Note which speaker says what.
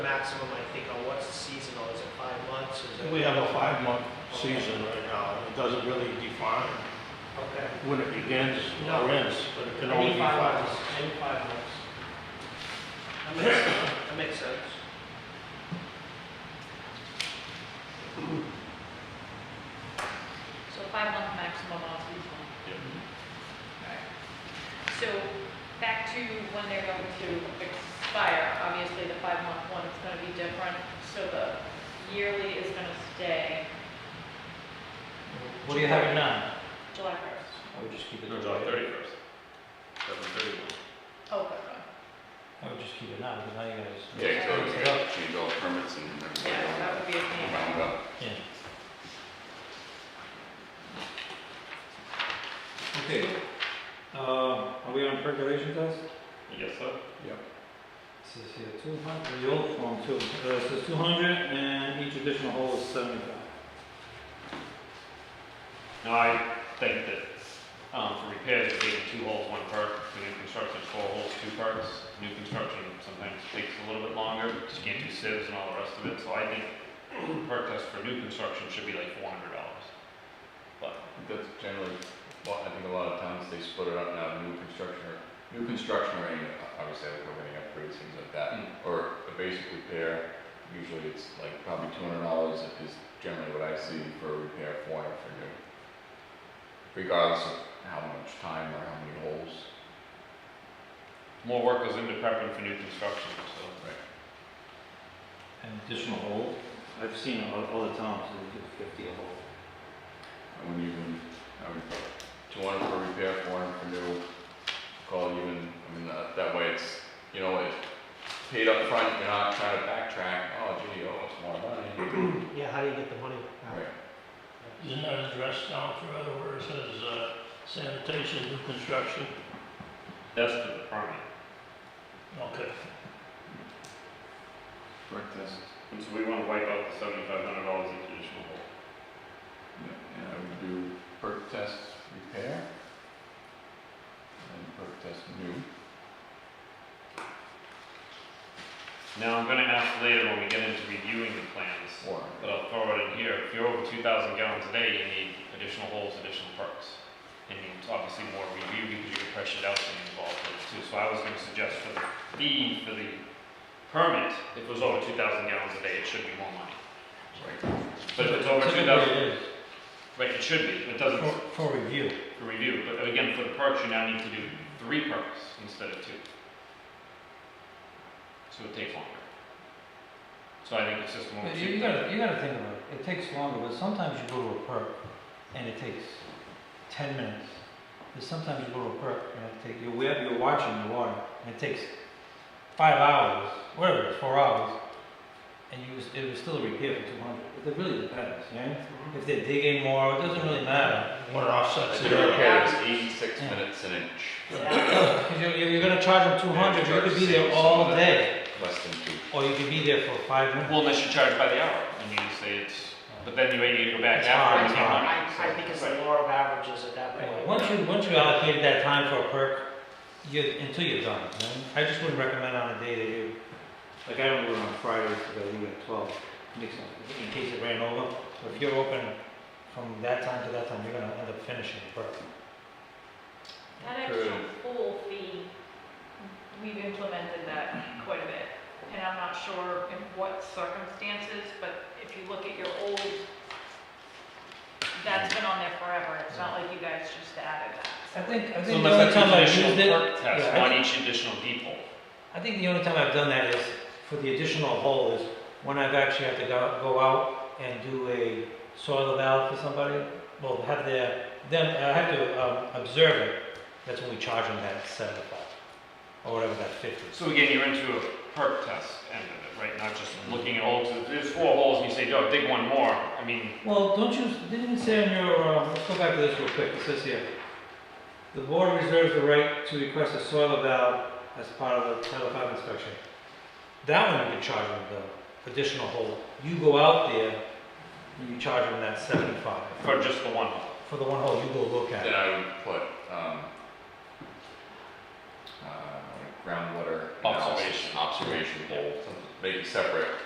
Speaker 1: maximum, I think, on what's seasonal, is it five months, is it?
Speaker 2: We have a five-month season right now, it doesn't really define
Speaker 1: Okay.
Speaker 2: when it begins
Speaker 1: No.
Speaker 2: or ends, but it can
Speaker 1: Any
Speaker 2: only be five months.
Speaker 1: Any five months. That makes, that makes sense.
Speaker 3: So five month maximum on seasonal. Alright. So back to when they're going to expire, obviously the five month one is gonna be different, so the yearly is gonna stay
Speaker 4: What do you have it now?
Speaker 3: July first.
Speaker 4: I would just keep it.
Speaker 5: No,
Speaker 4: the
Speaker 5: July
Speaker 4: way-
Speaker 5: thirty-first. Seven thirty-one.
Speaker 3: Oh, good one.
Speaker 4: I would just keep it now, because now you guys.
Speaker 5: Yeah,
Speaker 3: so
Speaker 4: Mix it up.
Speaker 5: Change all permits and everything.
Speaker 3: Yeah, that would be a pain.
Speaker 5: Round up.
Speaker 4: Yeah.
Speaker 6: Okay, um, are we on percolation test?
Speaker 5: Yes, sir.
Speaker 6: This is here two hundred, the old form two, uh, it says two hundred and each additional hole is seventy-five.
Speaker 5: No, I think that, um, for repairs, it's taking two holes, one perk, for new construction, it's four holes, two perks. New construction sometimes takes a little bit longer, just can't do sieves and all the rest of it, so I think perk test for new construction should be like four hundred dollars.
Speaker 7: That's generally, well, I think a lot of times they split it up now, new construction, or new construction or any, obviously, like we're getting upgrades, things like that.
Speaker 5: Hmm.
Speaker 7: Or a basic repair, usually it's like probably two hundred dollars is generally what I see for a repair, four hundred for new. Regardless of how much time or how many holes.
Speaker 5: More work goes into prepping for new construction, so.
Speaker 6: An additional hole? I've seen it o- other times, they do fifty a hole.
Speaker 7: I wouldn't even, I would, two hundred for repair, four hundred for new, call it even, I mean, that, that way it's, you know, it's paid up front, you're not trying to backtrack, oh gee, oh, it's more money.
Speaker 1: Yeah, how do you get the money?
Speaker 7: Right,
Speaker 2: Isn't that addressed down further where it says uh, sanitation, new construction?
Speaker 5: That's the permit.
Speaker 2: Okay.
Speaker 7: correct test,
Speaker 5: And so we wanna wipe out the seventy-five hundred dollars each additional hole.
Speaker 7: yeah, I would do perk test repair. And perk test new.
Speaker 5: Now, I'm gonna ask later when we get into reviewing the plans,
Speaker 7: Or,
Speaker 5: but I'll throw it in here, if you're over two thousand gallons a day, you need additional holes, additional perks. And you need obviously more review because you can pressure it out and involve those too, so I was gonna suggest for the fee for the permit, if it was over two thousand gallons a day, it should be more money.
Speaker 7: right,
Speaker 5: But if it's over two
Speaker 4: Typically
Speaker 5: thousand,
Speaker 4: it is,
Speaker 5: right, it should be, it doesn't,
Speaker 4: For, for review.
Speaker 5: for review, but again, for the perks, you now need to do three perks instead of two. So it takes longer. So I think it's just more.
Speaker 4: But You you gotta, you gotta think about it, it takes longer, but sometimes you go to a perk and it takes ten minutes. But sometimes you go to a perk and it takes, you're, wa- you're watching the water, and it takes five hours, whatever, it is, four hours, and you, was- it was still a repair for two hundred, it really depends, yeah? If they're digging more, it doesn't really matter,
Speaker 2: What offsets
Speaker 7: the
Speaker 2: the other?
Speaker 7: repair is eighty-six
Speaker 4: Yeah.
Speaker 7: minutes an inch,
Speaker 4: because you're, you're you're gonna charge them two hundred,
Speaker 7: Yeah,
Speaker 4: you could be
Speaker 7: charge
Speaker 4: there
Speaker 7: six,
Speaker 4: all
Speaker 7: seven.
Speaker 4: day,
Speaker 7: less than two.
Speaker 4: or you could be there for five minutes.
Speaker 5: Well, unless you charge by the hour, and you say it's, but then you need to go back
Speaker 4: It's
Speaker 5: after.
Speaker 4: hard,
Speaker 5: and
Speaker 4: it's
Speaker 5: get
Speaker 4: hard.
Speaker 5: money,
Speaker 1: I, I
Speaker 5: so-
Speaker 1: think it's the law of averages at that point.
Speaker 4: Once you, once you allocated that time for a perk, you, until you're done, you know? I just wouldn't recommend on a day that you,
Speaker 6: Like I don't do it on Fridays, because I leave at twelve.
Speaker 4: mix up, in case it ran over. But if you're open from that time to that time, you're gonna end up finishing the perk.
Speaker 3: That extra full fee, we've implemented that quite a bit. And I'm not sure in what circumstances, but if you look at your old, that's been on there forever. It's not like you guys just added that.
Speaker 4: I
Speaker 5: So
Speaker 4: think, I think the only
Speaker 5: unless that's
Speaker 4: time
Speaker 5: an
Speaker 4: I've used
Speaker 5: additional
Speaker 4: it,
Speaker 5: perk test,
Speaker 4: yeah, I-
Speaker 5: on each additional depot.
Speaker 4: I think the only time I've done that is for the additional hole is when I've actually had to go, go out and do a soil valve for somebody. Well, have their, them, I have to, um, observe it, that's when we charge them that seventy-five, or whatever that fifty.
Speaker 5: So again, you're into a perk test end of it, right, not just looking at holes, If there's four holes, and you say, yo, dig one more, I mean,
Speaker 4: Well, don't you, didn't it say on your, uh, let's go back to this real quick, it says here, the board reserves the right to request a soil valve as part of the Title V inspection. That one you can charge them the additional hole, you go out there, and you charge them that seventy-five.
Speaker 5: for just the one hole.
Speaker 4: For the one hole, you go look at
Speaker 7: Then
Speaker 4: it.
Speaker 7: I would put, um, uh, groundwater analysis,
Speaker 5: Observation.
Speaker 7: observation hole, make it separate